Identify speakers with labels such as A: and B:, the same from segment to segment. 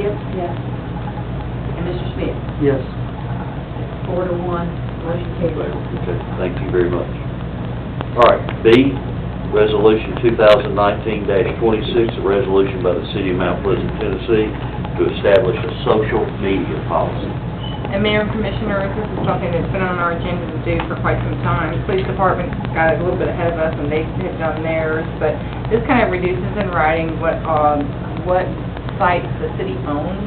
A: Yes. And Mr. Smith?
B: Yes.
A: Four to one, motion carried.
C: Okay, thank you very much. All right, B, Resolution 2019-26, a resolution by the City of Mount Pleasant, Tennessee, to establish a social media policy.
D: And Mayor and Commissioners, this is something that's been on our agenda to do for quite some time. Police Department got a little bit ahead of us, and they had done theirs, but this kind of reduces in writing what, um, what sites the city owns,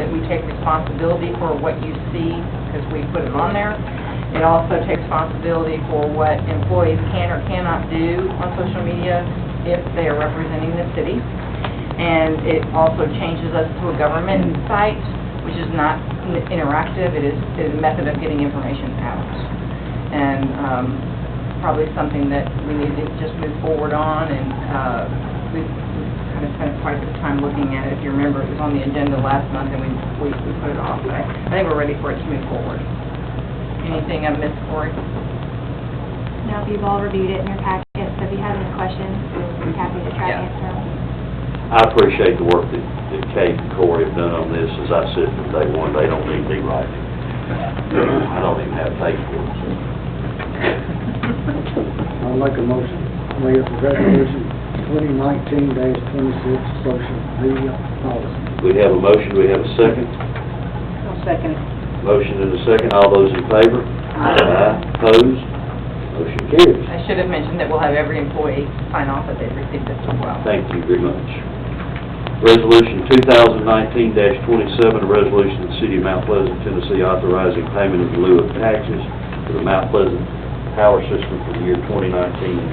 D: that we take responsibility for what you see, because we put it on there. It also takes responsibility for what employees can or cannot do on social media if they are representing the city. And it also changes us to a government site, which is not n- interactive, it is, it is a method of getting information out. And um, probably something that we need to just move forward on, and uh, we've we've kind of spent quite a bit of time looking at it. If you remember, it was on the agenda last month, and we, we we put it off, but I I think we're ready for it to move forward. Anything I missed, Cory?
E: Now, if you've all reviewed it in your packet, so if you have any questions, we'd be happy to try
D: Yeah.
E: to answer them.
C: I appreciate the work that that Kate and Corey have done on this. As I said from day one, they don't need me writing. I don't even have faith for it. so.
B: I'd like a motion, Mayor, for resolution twenty nineteen dash twenty-six, social media policy.
C: We have a motion, we have a second.
A: I'll second it.
C: Motion and a second, all those in favor? Aye. Opposed? Motion carries.
D: I should have mentioned that we'll have every employee sign off that they've received this as well.
C: Thank you very much. Resolution 2019-27, a resolution of the City of Mount Pleasant, Tennessee authorizing payment in lieu of taxes for the Mount Pleasant Power System for the year 2019 and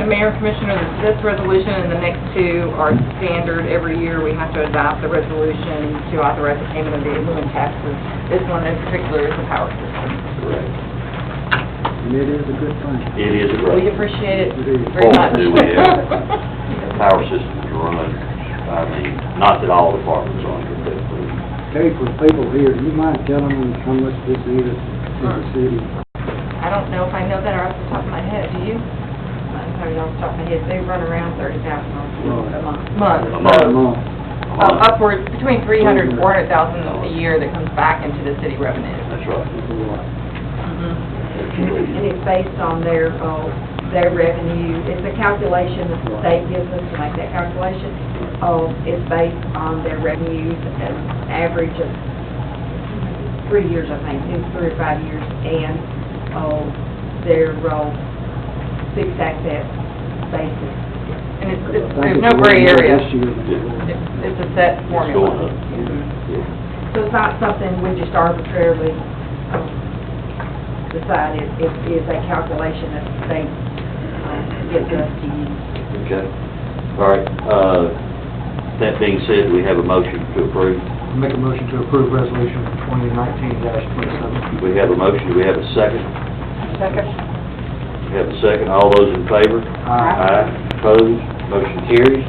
C: 2020.
D: The Mayor and Commissioner, this resolution and the next two are standard. Every year, we have to adopt the resolution to authorize the payment of the aluminum taxes. This one in particular is the power system.
C: Correct.
B: And it is a good thing.
C: It is a
D: We
C: great,
D: appreciate it
C: Oh,
D: very much.
C: do we, the power system is run, I mean, not that all departments are under, but we-
B: Kate, for people here, do you mind telling them how much this is to the city?
D: I don't know if I know that off the top of my head, do you?
A: I don't have it off the top of my head, they run around thirty thousand a month.
D: Month.
C: A
B: A month.
D: Uh, Upwards, between 300 and 400,000 a year that comes back into the city revenue.
C: that's right.
B: That's a lot.
D: Mm-hmm.
A: And it's based on their, uh, their revenue, it's a calculation that the state gives us to make that calculation. Uh, it's based on their revenues, an average of three years, I think, two, three or five years, and, uh, their, uh, fixed asset basis.
D: And it's, it's- there's no gray area.
B: This year, that's a lot.
D: It's it's a set
C: It's
D: formula.
C: going up. Yeah.
A: So it's not something we just arbitrarily um, decide, it it is a calculation that the state um, gives us to use.
C: Okay. All right, uh, that being said, we have a motion to approve.
F: Make a motion to approve resolution 2019-27.
C: We have a motion, we have a second.
D: Second.
C: We have a second, all those in favor?
F: Uh,
C: Aye. Opposed, motion carries.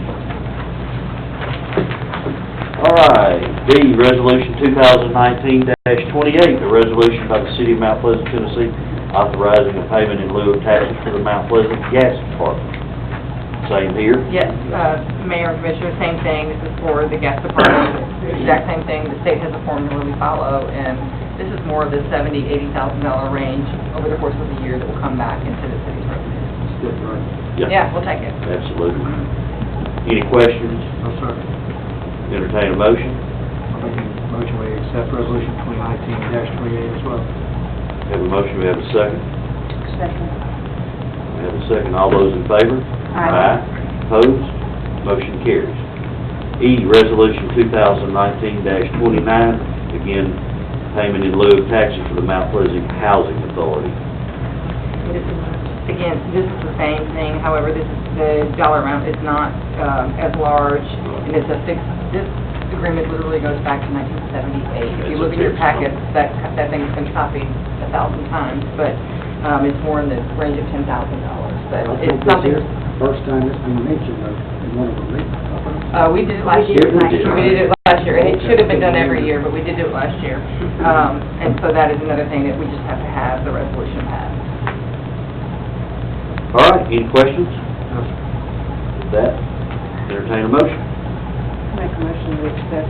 C: All right, B, Resolution 2019-28, a resolution by the City of Mount Pleasant, Tennessee, authorizing a payment in lieu of taxes for the Mount Pleasant Gas Department. Same here?
D: Yes, uh, Mayor and Commissioner, same thing, this is for the gas department, It's the exact same thing, the state has a formula we follow, and this is more of the seventy, eighty thousand dollar range over the course of the year that will come back into the city's revenue.
B: It's good, right?
D: Yeah, we'll take it.
C: Absolutely.
D: Mm-hmm.
C: Any questions?
F: No, sir.
C: Entertain a motion?
F: Oh, I'll make a motion we accept resolution 2019-28 as well.
C: Have a motion, we have a second. We have a second, all those in favor? Aye. Opposed? Motion carries. E, Resolution 2019-29, again, payment in lieu of taxes for the Mount Pleasant Housing Authority.
D: This is, again, this is the same thing, however, this, the dollar amount is not um, as large, and it's a fixed, this agreement literally goes back to 1978. If you
C: It's a
D: look at your
C: fixed amount.
D: packets, that, that thing's been copied a thousand times, but um, it's more in the range of $10,000, but
B: I
D: it's
B: think this
D: something,
B: is first time it's been mentioned uh, in one of the meetings.
D: uh, we did it last
A: We
D: year.
A: did it last
C: year.
D: We did it last year, and it should have been done every year, but we did it last year. Um, And so that is another thing that we just have to have the resolution passed.
C: All right, any questions?
F: No, sir.
C: With that, entertain a motion.
A: Make a motion to accept